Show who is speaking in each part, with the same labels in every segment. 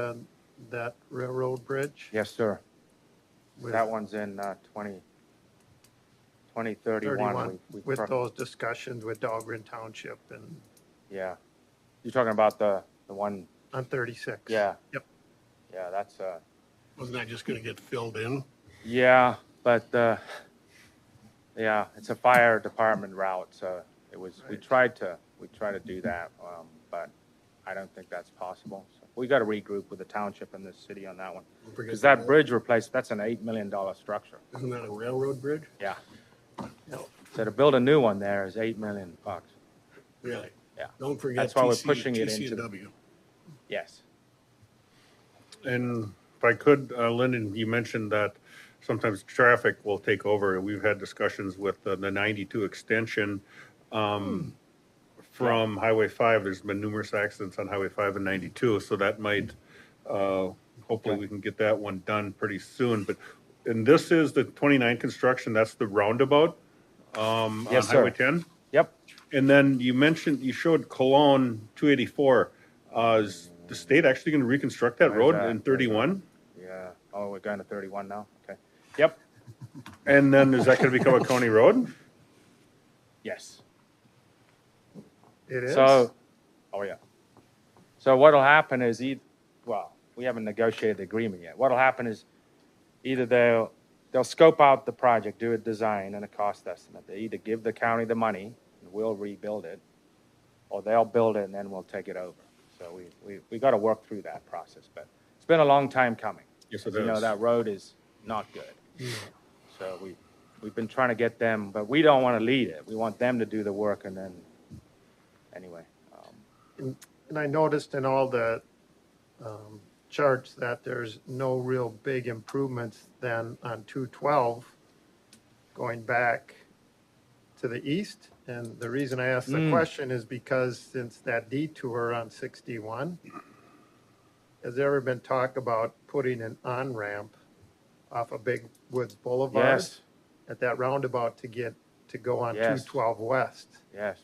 Speaker 1: um, that railroad bridge?
Speaker 2: Yes, sir.
Speaker 1: with-
Speaker 2: That one's in uh, 20, 2031.
Speaker 1: 31,
Speaker 2: We- we
Speaker 1: with
Speaker 2: cro-
Speaker 1: those discussions with Dahlgren Township and
Speaker 2: Yeah. You're talking about the, the one,
Speaker 1: on 36.
Speaker 2: yeah.
Speaker 1: Yep.
Speaker 2: Yeah, that's, uh,
Speaker 3: Wasn't that just gonna get filled in?
Speaker 2: yeah, but, uh, yeah, it's a fire department route, so it was, we
Speaker 1: Right.
Speaker 2: tried to, we tried to do that, um, but I don't think that's possible. So We got to regroup with the township and the city on that one.
Speaker 3: Don't forget
Speaker 2: Because
Speaker 3: the
Speaker 2: that
Speaker 3: rail-
Speaker 2: bridge replaced, that's an $8 million structure.
Speaker 3: Isn't that a railroad bridge?
Speaker 2: Yeah.
Speaker 1: Yep.
Speaker 2: So to build a new one there is 8 million bucks.
Speaker 3: Really?
Speaker 2: Yeah.
Speaker 3: Don't forget.
Speaker 2: That's why we're
Speaker 3: TC
Speaker 2: pushing it into-
Speaker 3: TCW.
Speaker 2: Yes.
Speaker 4: And if I could, uh, Lyndon, you mentioned that sometimes traffic will take over. and We've had discussions with the the 92 extension
Speaker 2: Hmm.
Speaker 4: um, from Highway 5. There's been numerous accidents on Highway 5 and 92, so that might, uh, hopefully we can get that one done pretty soon. But, and this is the 29 construction, that's the roundabout um, on
Speaker 2: Yes, sir.
Speaker 4: Highway 10?
Speaker 2: Yep.
Speaker 4: And then you mentioned, you showed Cologne 284. Uh, Is the state actually going to reconstruct that
Speaker 2: Where's
Speaker 4: road
Speaker 2: that?
Speaker 4: in 31?
Speaker 2: Yeah. Oh, we're going to 31 now? Okay. Yep.
Speaker 4: And then is that going to become a county road?
Speaker 2: Yes.
Speaker 1: It is.
Speaker 2: So, oh, yeah. So what'll happen is, eith- well, we haven't negotiated the agreement yet. What'll happen is either they'll, they'll scope out the project, do a design and a cost estimate. They either give the county the money and we'll rebuild it, or they'll build it and then we'll take it over. So we, we, we got to work through that process, but it's been a long time coming.
Speaker 4: Yes,
Speaker 2: You know, that road is not good. So we, we've been trying to get them, but we don't want to lead it. We want them to do the work and then, anyway. um,
Speaker 1: And I noticed in all the um, charts that there's no real big improvements then on 212 going back to the east. And the reason I asked the
Speaker 2: Mm.
Speaker 1: question is because since that detour on 61, has there ever been talk about putting an on-ramp off of Big Woods Boulevard?
Speaker 2: Yes,
Speaker 1: At that roundabout to get, to go on
Speaker 2: Yes.
Speaker 1: 212 West?
Speaker 2: yes.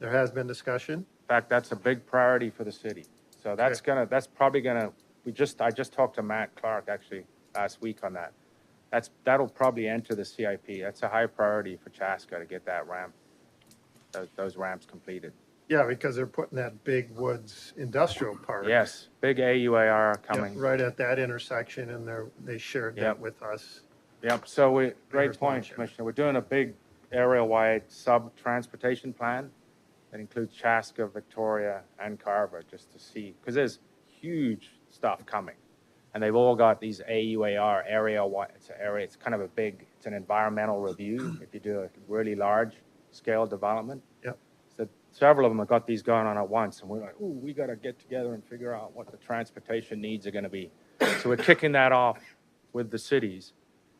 Speaker 1: There has been discussion?
Speaker 2: In fact, that's a big priority for the city. So that's gonna, that's probably gonna, we just, I just talked to Matt Clark actually last week on that. That's, that'll probably enter the CIP. That's a high priority for Chaska to get that ramp, tho- those ramps completed.
Speaker 1: Yeah, because they're putting that big woods industrial park.
Speaker 2: Yes, big
Speaker 1: Yeah,
Speaker 2: AUAR coming.
Speaker 1: Right at that intersection and they're, they shared that
Speaker 2: Yep.
Speaker 1: with us.
Speaker 2: Yep, so we,
Speaker 1: Mayor's
Speaker 2: great point,
Speaker 1: Township.
Speaker 2: Commissioner. We're doing a big area-wide sub-transportation plan that includes Chaska, Victoria, and Carver, just to see, because there's huge stuff coming. And they've all got these AUAR area-wide, it's an area, it's kind of a big, it's an environmental review if you do a really large-scale development.
Speaker 1: Yep.
Speaker 2: So several of them have got these going on at once, and we're like, ooh, we gotta get together and figure out what the transportation needs are gonna be. So we're kicking that off with the cities,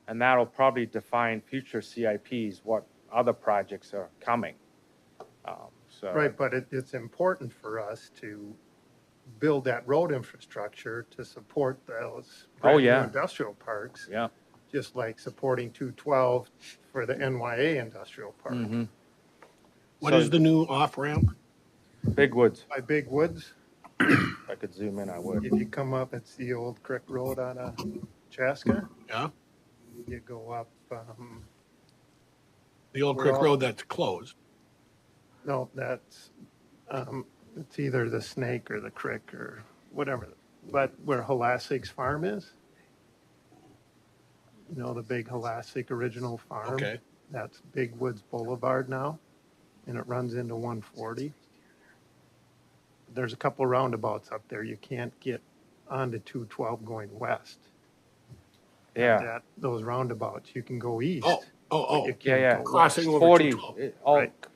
Speaker 2: and that'll probably define future CIPs, what other projects are coming. Um, So.
Speaker 1: Right, but it, it's important for us to build that road infrastructure to support those.
Speaker 2: Oh,
Speaker 1: brand new
Speaker 2: yeah.
Speaker 1: Industrial parks,
Speaker 2: Yeah.
Speaker 1: just like supporting two twelve for the NYA industrial park.
Speaker 2: mhm.
Speaker 3: What
Speaker 2: So-
Speaker 3: is the new off-ramp?
Speaker 2: Big woods.
Speaker 1: By Big Woods,
Speaker 2: If I could zoom in, I would.
Speaker 1: if you come up, it's the old Creek Road on, uh, Chaska.
Speaker 3: Yeah,
Speaker 1: You go up, um,
Speaker 3: the old
Speaker 1: We're
Speaker 3: Creek
Speaker 1: all-
Speaker 3: Road that's closed.
Speaker 1: No, that's, um, it's either the snake or the crick or whatever, but where Halasik's farm is. You know, the big Halasik original farm?
Speaker 3: Okay,
Speaker 1: That's Big Woods Boulevard now, and it runs into one forty. There's a couple roundabouts up there. You can't get onto two twelve going west.
Speaker 2: Yeah.
Speaker 1: That, those roundabouts, you can go east.
Speaker 3: Ah. oh, oh,
Speaker 1: but you
Speaker 3: oh,
Speaker 2: Yeah,
Speaker 1: can't
Speaker 2: yeah.
Speaker 1: go
Speaker 3: Crossing
Speaker 1: west.
Speaker 3: over
Speaker 2: Forty,
Speaker 3: 212.
Speaker 2: it- oh,
Speaker 1: Right.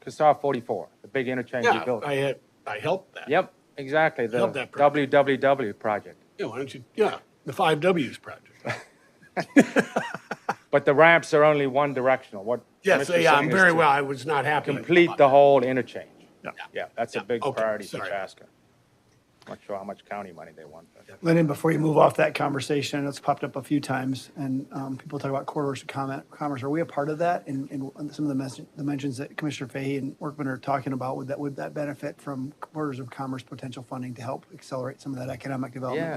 Speaker 2: Casar forty-four, the big interchange you
Speaker 3: yeah,
Speaker 2: built.
Speaker 3: I had, I helped that.
Speaker 2: Yep, exactly, the
Speaker 3: Love that project.
Speaker 2: WWW project.
Speaker 3: Yeah, why don't you, yeah, the five Ws project.
Speaker 2: But the ramps are only one directional, what?
Speaker 3: Yes,
Speaker 2: Mr.
Speaker 3: yeah, I'm
Speaker 2: Singh is
Speaker 3: very
Speaker 2: to
Speaker 3: well, I was not happy.
Speaker 2: Complete
Speaker 3: about
Speaker 2: the
Speaker 3: that.
Speaker 2: whole interchange.
Speaker 1: Yeah.
Speaker 2: Yeah, that's a
Speaker 3: Yeah,
Speaker 2: big
Speaker 3: okay,
Speaker 2: priority for
Speaker 3: sorry.
Speaker 2: Chaska. Not sure how much county money they want. but-
Speaker 5: Lennon, before you move off that conversation, it's popped up a few times, and um, people talk about corridors of comment, commerce. Are we a part of that? And, and some of the mes- the mentions that Commissioner Fahey and Workman are talking about, would that, would that benefit from corridors of commerce potential funding to help accelerate some of that economic development?
Speaker 2: Yeah.